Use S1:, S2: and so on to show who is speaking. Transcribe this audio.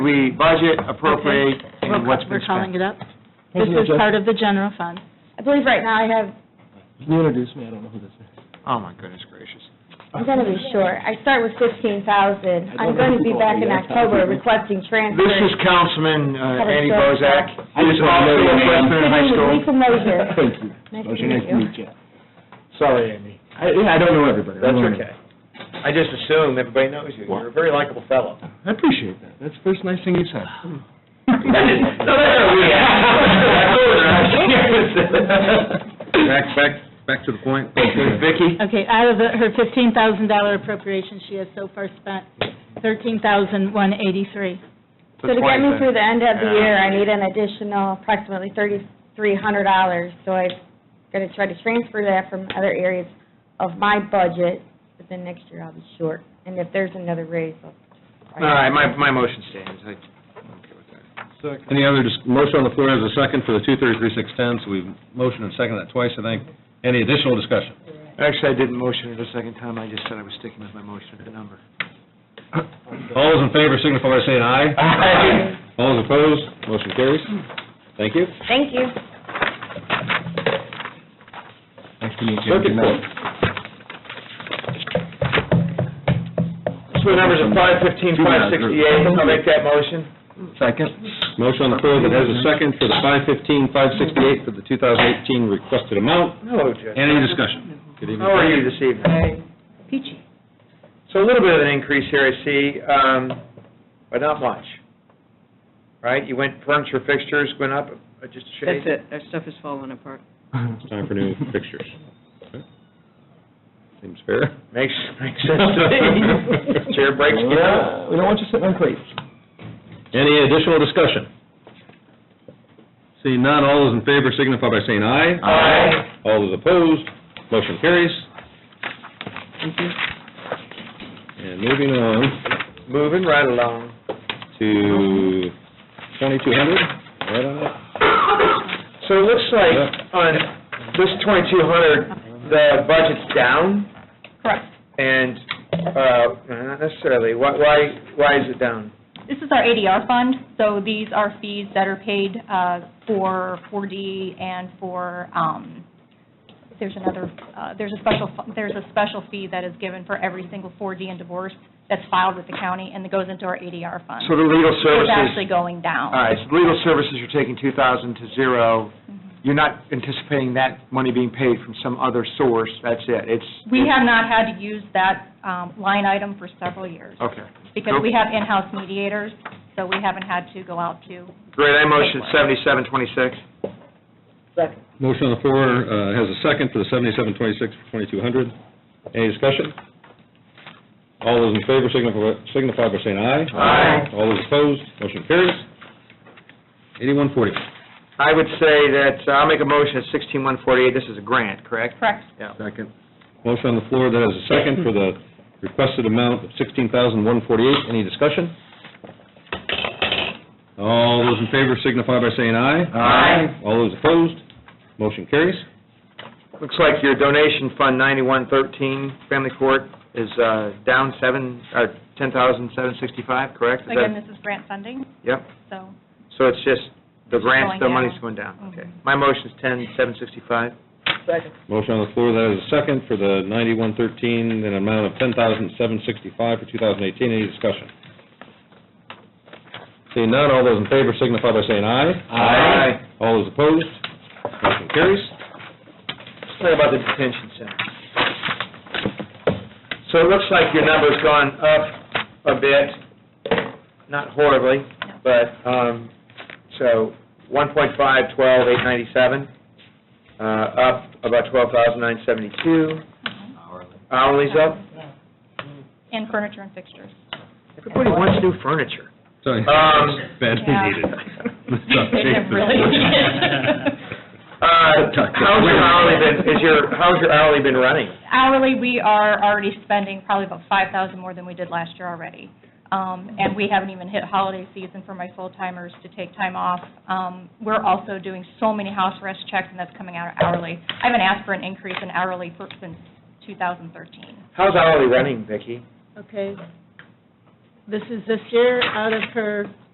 S1: We budget, appropriate, and
S2: We're
S1: what's
S2: ca-
S1: been
S2: We're calling
S1: spent.
S2: it up. This
S3: Thank you,
S2: is
S3: Judge.
S2: part of the general fund. I believe right now I have,
S3: You introduced me, I don't know who this is.
S1: Oh, my goodness gracious.
S4: I'm gonna be short. I start with fifteen thousand.
S3: I don't
S4: I'm gonna
S3: know
S4: be
S3: who
S4: back
S3: all
S4: in
S3: the
S4: October
S3: other-
S4: requesting transfers.
S1: This is Councilman uh,
S4: Had a
S1: Andy
S4: stroke.
S1: Bozak.
S3: I
S1: He is
S3: just
S1: also
S3: wanna know your
S1: a
S3: name.
S1: freshman in high school.
S4: Lisa Mosier.
S3: Thank you.
S4: Nice to
S3: Motion
S4: meet you.
S1: Sorry, Andy.
S3: I, yeah, I don't know everybody. I
S1: That's
S3: don't know
S1: okay. I just assume everybody knows you. You're a very likable fellow.
S3: everybody. I appreciate that, that's the first nice thing you said.
S1: Back, back, back to the point. Vicki?
S2: okay, out of the- her $15,000 appropriation, she has so far spent $13,183.
S4: So to get me through the end of the year, I need an additional approximately thirty-three hundred dollars. So I'm gonna try to transfer that from other areas of my budget, but then next year I'll be short. And if there's another raise, I'll.
S1: All right, my, my motion stands. I- I'm okay with that.
S5: Any other, dis- motion on the floor has a second for the 233-610, so we've motioned and seconded that twice, I think. Any additional discussion?
S1: Actually, I didn't motion it a second time, I just said I was sticking with my motion at the number.
S5: All those in favor signify by saying aye.
S1: Aye.
S5: All those opposed, motion carries. Thank you.
S4: Thank you.
S3: Nice to meet you.
S5: Circuit court.
S1: So the numbers are five fifteen, five sixty-eight, I'll make that motion.
S3: Second.
S5: Motion on the floor that has a second for the 515-568 for the 2018 requested amount.
S1: Hello, Judge.
S5: Any discussion? Good evening.
S1: How are you this evening?
S2: Peachy.
S1: So a little bit of an increase here, I see, um, but not much. Right, you went furniture fixtures went up uh, just a shade?
S6: That's it, our stuff is falling apart.
S5: It's time for new pictures. Seems fair.
S1: Makes, makes sense to me. Chair breaks, get out.
S3: We don't want you sitting on crates.
S5: Any additional discussion? Seeing none, all those in favor signify by saying aye.
S1: Aye.
S5: All those opposed, motion carries. And moving on
S1: Moving right along.
S5: to 2200, right on up.
S1: So it looks like on this twenty-two hundred, the budget's down?
S2: Correct.
S1: And, uh, not necessarily, why, why, why is it down?
S7: This is our ADR fund, so these are fees that are paid uh, for 4D and for, um, there's another, uh, there's a special, fu- there's a special fee that is given for every single 4D and divorce that's filed with the county, and it goes into our ADR fund.
S1: So the legal
S7: It's
S1: services,
S7: actually going down.
S1: all right, so legal services, you're taking two thousand to zero.
S7: Mm-hmm.
S1: You're not anticipating that money being paid from some other source, that's it, it's.
S7: We have not had to use that um, line item for several years,
S1: Okay.
S7: because we have in-house mediators, so we haven't had to go out to
S1: Great, I motion seventy-seven twenty-six.
S5: Motion on the floor uh, has a second for the 7726 for 2200. Any discussion? All those in favor signify signify by saying aye.
S1: Aye.
S5: All those opposed, motion carries. 8140.
S1: I would say that, uh, I'll make a motion at sixteen one forty-eight, this is a grant, correct?
S7: correct
S1: Yeah.
S5: Second. Motion on the floor that has a second for the requested amount of $16,148. Any discussion? All those in favor signify by saying aye.
S1: Aye.
S5: All those opposed, motion carries.
S1: Looks like your donation fund ninety-one thirteen, family court, is, uh, down seven, or ten thousand seven sixty-five, correct? Is that-
S7: Again, this is grant funding,
S1: Yep,
S7: so
S1: so it's just, the
S7: It's
S1: grants,
S7: going
S1: the
S7: down.
S1: money's going down, okay.
S7: Mhm.
S1: My motion's ten seven sixty-five.
S5: Motion on the floor that has a second for the 9113, an amount of $10,765 for 2018. Any discussion? Seeing none, all those in favor signify by saying aye.
S1: Aye.
S5: All those opposed, motion carries.
S1: Let's talk about the detention center. So it looks like your number's gone up a bit, not horribly, but, um, so, 1.5, 12, 897, uh, up about 12,972. Hourly's up.
S7: in furniture and fixtures.
S1: Everybody wants new furniture.
S5: Sorry.
S1: Um,
S5: Badly
S7: Yeah.
S5: needed.
S7: They have really-
S1: Uh, how's your hourly been, is your, how's your hourly been running?
S7: Hourly, we are already spending probably about 5,000 more than we did last year already. Um, And we haven't even hit holiday season for my full-timers to take time off. Um, We're also doing so many house arrest checks, and that's coming out hourly. I haven't asked for an increase in hourly for- since 2013.
S1: How's hourly running, Vicki?
S2: Okay. This is this year, out of her